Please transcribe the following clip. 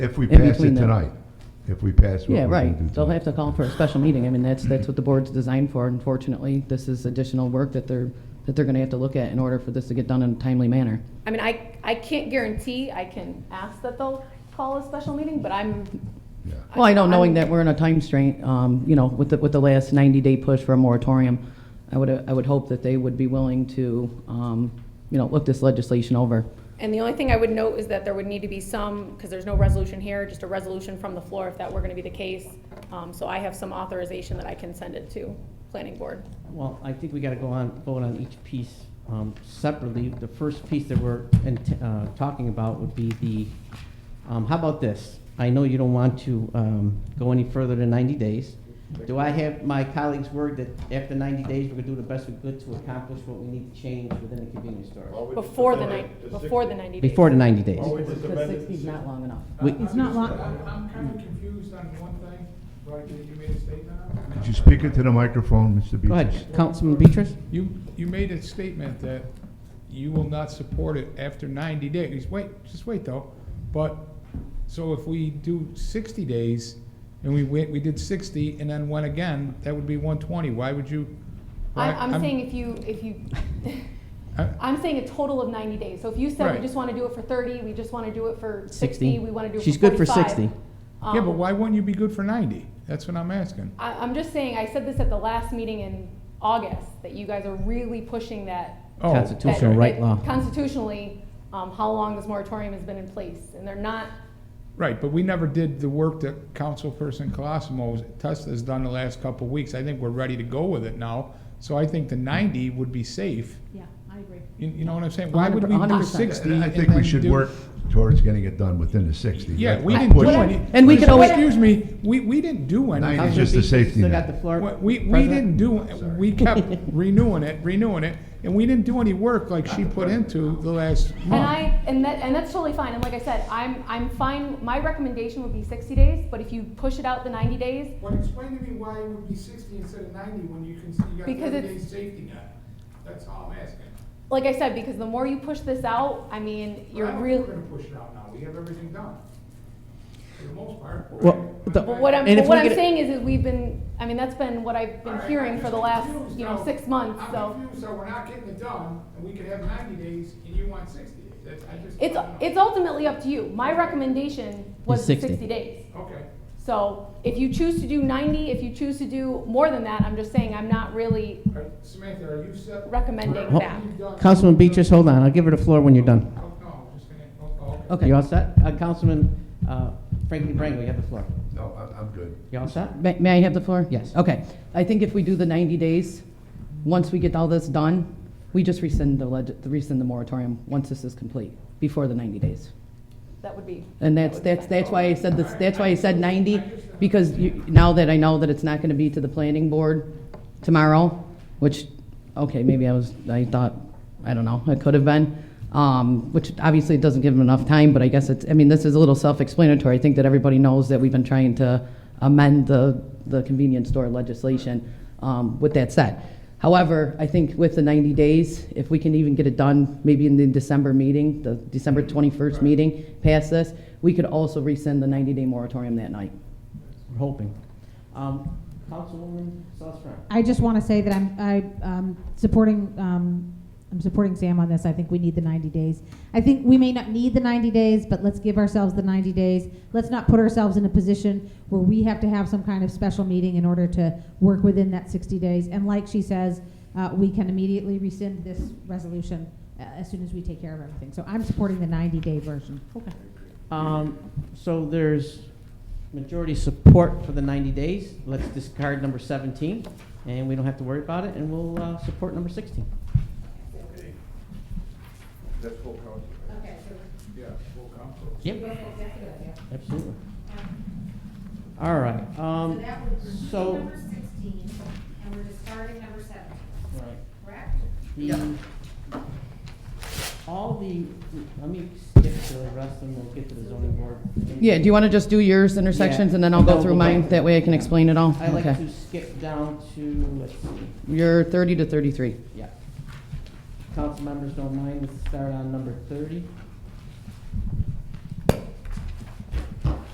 If we In pass it between them. tonight, if we pass what we're Yeah, going to do right. They'll have tonight. to call for a special meeting. I mean, that's, that's what the board's designed for. Unfortunately, this is additional work that they're, that they're going to have to look at in order for this to get done in a timely manner. I mean, I, I can't guarantee, I can ask that they'll call a special meeting, but I'm. Yeah. Well, I know, knowing I'm- that we're in a time strain, um, you know, with the, with the last 90-day push for a moratorium, I would, I would hope that they would be willing to, um, you know, look this legislation over. And the only thing I would note is that there would need to be some, because there's no resolution here, just a resolution from the floor if that were gonna be the case. Um, so I have some authorization that I can send it to planning board. Well, I think we gotta go on, vote on each piece um, separately. The first piece that we're in- uh, talking about would be the, um, how about this? I know you don't want to um, go any further than 90 days. Do I have my colleagues' word that after 90 days, we're gonna do the best we could to accomplish what we need to change within the convenience store? Before the night, before the ninety days. Before the 90 days. Well, we just Because amended 60 is not long enough. We- It's not long, I'm, I'm kind of confused on one thing, right, you you made a statement on. Could you speak into the microphone, Mr. Beatrice? Go ahead, Councilman Beatrice? You, you made a statement that you will not support it after ninety days, wait, just wait though, but, so if we do sixty days, and we went, we did sixty, and then went again, that would be one twenty, why would you? I, why- I'm saying if you, if you, I- I'm saying a total of ninety days. So if you said we Right. just wanna do it for thirty, we just wanna do it for 60. sixty, we wanna do it for She's good for 45, 60. um, Yeah, but why wouldn't you be good for ninety? That's what I'm asking. I, I'm just saying, I said this at the last meeting in August, that you guys are really pushing that. Oh, that- Constitutional okay. right that law. Constitutionally, um, how long this moratorium has been in place, and they're not, Right, but we never did the work that Councilperson Colosimo's test has done the last couple of weeks. I think we're ready to go with it now. So I think the ninety would be safe. yeah, I agree. You, you know what I'm saying? Why would we do 100%. sixty? And I and think we then should do- work towards getting it done within the 60. Yeah, Let's we not didn't do push What- it. any. and we could always- Excuse me, we, we didn't do anything. Ninety It's just a Councilman Beatrice, you safety Still net. got the floor. We, we President? didn't do, we kept renewing it, renewing it, and we didn't do any work like she put into the last and month. I, and that, and that's totally fine, and like I said, I'm, I'm fine, my recommendation would be sixty days, but if you push it out the ninety days, Well, explain to me why it would be sixty instead of ninety when you can, you Because 30 it's- days safety net. That's all I'm asking. like I said, because the more you push this out, I mean, you're really. We're gonna push it out now, we have everything done. For the most part. Well, the- But what I'm, And but if what we I'm get- saying is, is we've been, I mean, that's been what I've been hearing for the last, you know, six months, so. I'm confused, so we're not getting it done, and we could have ninety days, and you want sixty days, that's, I just. It's, it's ultimately up to you. My recommendation was Is 60. 60 days. Okay. So if you choose to do 90, if you choose to do more than that, I'm just saying, I'm not really, Are- Samantha, are you set? Recommending Whatever that. you've done- Councilman Beatrice, hold on, I'll give her the floor when you're done. Oh, no, I'm just gonna, oh, oh, okay. Okay. You all set? Uh, Councilman uh, Frankie Brango, you have the floor. No, I- I'm good. You all set? May, may I have the floor? Yes. Okay. I think if we do the 90 days, once we get all this done, we just rescind the, leg- rescind the moratorium once this is complete, before the 90 days. that would be. And that's, that's, that's why I said this, that's why I said ninety, because you, now that I know that it's not gonna be to the planning board tomorrow, which, okay, maybe I was, I thought, I don't know, it could have been. Um, which obviously it doesn't give them enough time, but I guess it's, I mean, this is a little self-explanatory. I think that everybody knows that we've been trying to amend the, the convenience store legislation, um, with that said. However, I think with the ninety days, if we can even get it done, maybe in the December meeting, the December twenty-first meeting, pass this, we could also rescind the ninety-day moratorium that night. We're hoping. Um, Councilwoman Salzbrun. I just want to say that I'm, I, um, supporting, um, I'm supporting Sam on this. I think we need the 90 days. I think we may not need the 90 days, but let's give ourselves the 90 days. Let's not put ourselves in a position where we have to have some kind of special meeting in order to work within that 60 days. And like she says, uh, we can immediately rescind this resolution uh, as soon as we take care of everything. So I'm supporting the 90-day version. Okay. Um, so there's majority support for the 90 days. Let's discard number 17, and we don't have to worry about it, and we'll uh, support number 16. That's full council. Okay. Yeah, full council. Yep. Absolutely. All right. So Um, that would remove so- number sixteen, and we're discarding number seventeen, right. correct? The, all the, let me skip to the rest and we'll get to the zoning board. Yeah, do you wanna just do yours intersections and then I'll go through mine? That way I can explain it all? I like Okay. to skip down to, let's see, You're thirty to thirty-three. yeah. Council members don't mind, let's start on number thirty.